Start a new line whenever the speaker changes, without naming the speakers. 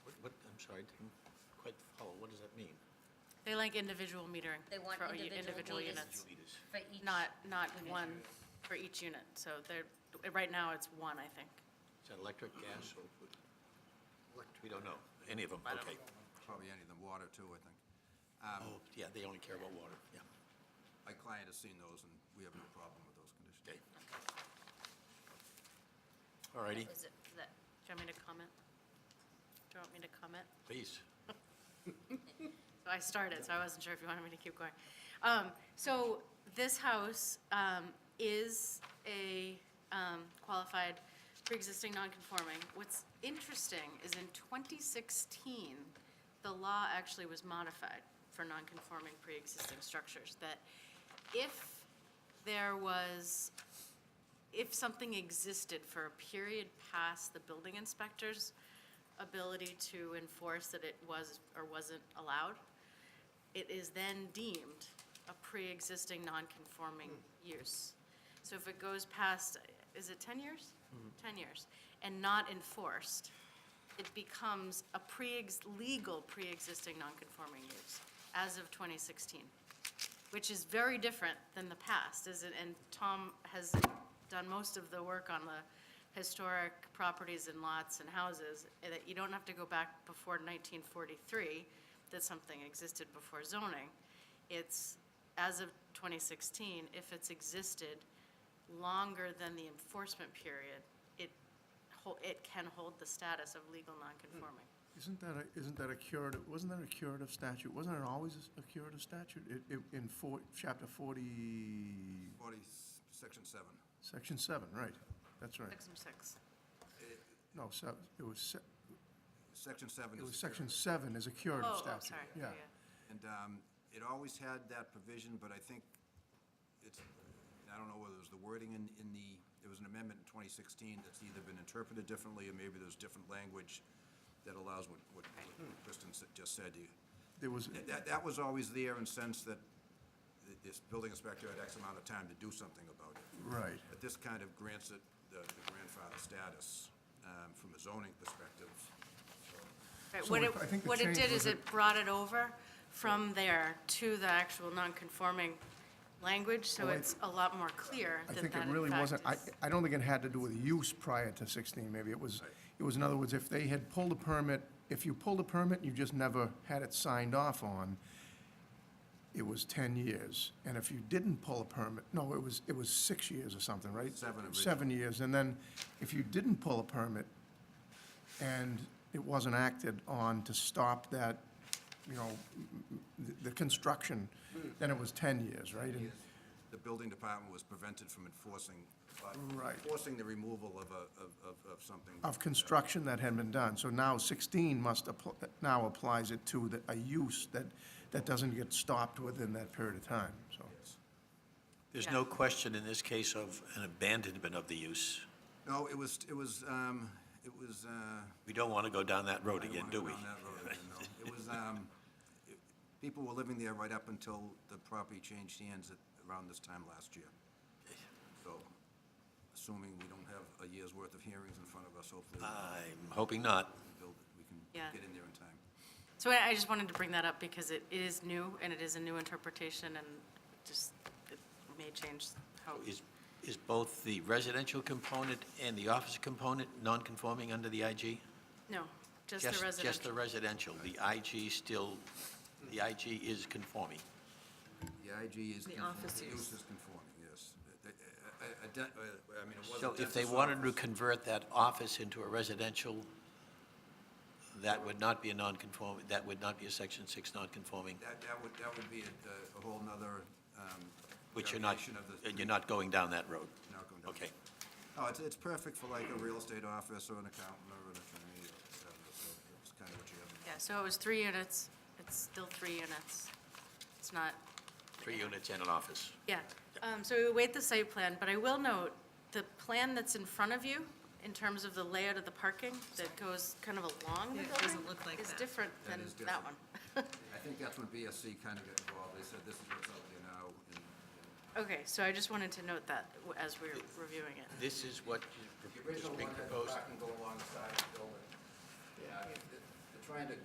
I didn't quite follow, what does that mean?
They like individual metering.
They want
for u-
individual meters.
units,
Leaders.
for each.
Not, not one for each unit. So they're, right now, it's one, I think.
Is that electric, gas, or? We don't know, any of them,
I don't Um,
okay.
Probably any of the water too, I think.
Oh, yeah, they only care about water, yeah,
My client has seen those and we have no problem with those
okay.
conditions.
All righty,
Is it for that?
Do you want me to comment? Do you want me to comment?
please.
So I started, so I wasn't sure if you wanted me to keep going. Um, So this house um, is a um, qualified pre-existing non-conforming. What's interesting is in 2016, the law actually was modified for non-conforming pre-existing structures, that if there was if something existed for a period past the building inspector's ability to enforce that it was or wasn't allowed, it is then deemed a pre-existing non-conforming use. So if it goes past, is it 10 years? 10 years, and not enforced, it becomes a pre, legal pre-existing non-conforming use as of 2016 which is very different than the past, is it? And Tom has done most of the work on the historic properties and lots and houses, and that you don't have to go back before 1943 that something existed before zoning. It's, as of 2016, if it's existed longer than the enforcement period, it, hol- it can hold the status of legal nonconforming.
Isn't that a, isn't that a curative, wasn't that a curative statute? Wasn't it always a curative statute? It, it, in four, chapter forty,
Forty, s- section seven.
section seven, right? That's right.
Six and six.
No, se- it was, se-
Section seven
it
is.
was
the
section
curative.
seven is a curative
Oh, oh,
statute.
sorry.
Yeah.
Yeah.
And um, it always had that provision, but I think it's, I don't know whether it was the wording in, in the, there was an amendment in 2016 that's either been interpreted differently, or maybe there's different language that allows what, what what Kristen s- just said to you.
There was,
That- That, that was always there in sense that th- this building inspector had X amount of time to do something about it.
right.
But this kind of grants it the the grandfather status um, from a zoning perspective.
Right,
So
what
I-
it,
I think the
what it
change
did
was
is
it-
it brought it over from there to the actual non-conforming language, so
Well, I-
it's a lot more clear
I
that
think it
that
really
in
wasn't, I,
fact is.
I don't think it had to do with use prior to 16, maybe. It was, it was, in other words, if they had pulled a permit, if you pulled a permit and you just never had it signed off on, it was 10 years. And if you didn't pull a permit, no, it was, it was six years or something, right?
Seven
Seven years. And then if you didn't pull a permit and it wasn't acted on to stop that, you know, m- m- the, the construction, then it was 10 years, right? And-
The building department was prevented from enforcing, uh,
Right.
enforcing the removal of a, of, of- of something.
of construction that had been done. So now 16 must, appl- now applies it to the- a use that, that doesn't get stopped within that period of time, so.
There's
Yeah.
no question in this case of an abandonment of the use.
No, it was, it was, um, it was, uh,
We don't want to go down that road
I don't
again,
wanna
do
go
we?
down that road again, no. It was, um, it- people were living there right up until the property changed hands at, around this time last year. So, assuming we don't have a year's worth of hearings in front of us, hopefully,
I'm hoping not.
we can build it, we
Yeah.
can get in there in time.
So I I just wanted to bring that up because it it is new, and it is a new interpretation, and just, it may change how.
Is, is both the residential component and the office component non-conforming under the IG?
No, just the
Just the residential.
residential.
The IG still, the IG is conforming.
The IG is.
The
conforming.
officers.
Use is conforming, yes. Uh, uh, uh, uh, de- uh, I mean, it wasn't.
So if they
dentist
wanted to
office.
convert that office into a residential, that would not be a non-conform, that would not be a Section 6 non-conforming,
That, that would, that would be a, a whole nother, um.
which you're not,
variation of the-
and you're not going down that road.
not going down.
Okay.
Oh, it's, it's perfect for like a real estate office or an accountant or an attorney or whatever, so it's kind of what you have.
Yeah, so it was three units, it's still three units. It's not
Three units and an office.
Yeah, um, so we await the site plan, but I will note, the plan that's in front of you, in terms of the layout of the parking that goes kind of along the
Yeah, it
building.
doesn't look like
Is
that.
different
That
than
is
that
different.
one.
I think that's when BSC kind of got involved, they said this is what's out there now, and,
Okay, so I just wanted to note that w- as we're reviewing it.
This is what
The
is
original
being
one had the
proposed.
parking go alongside the building. Yeah, I mean, th-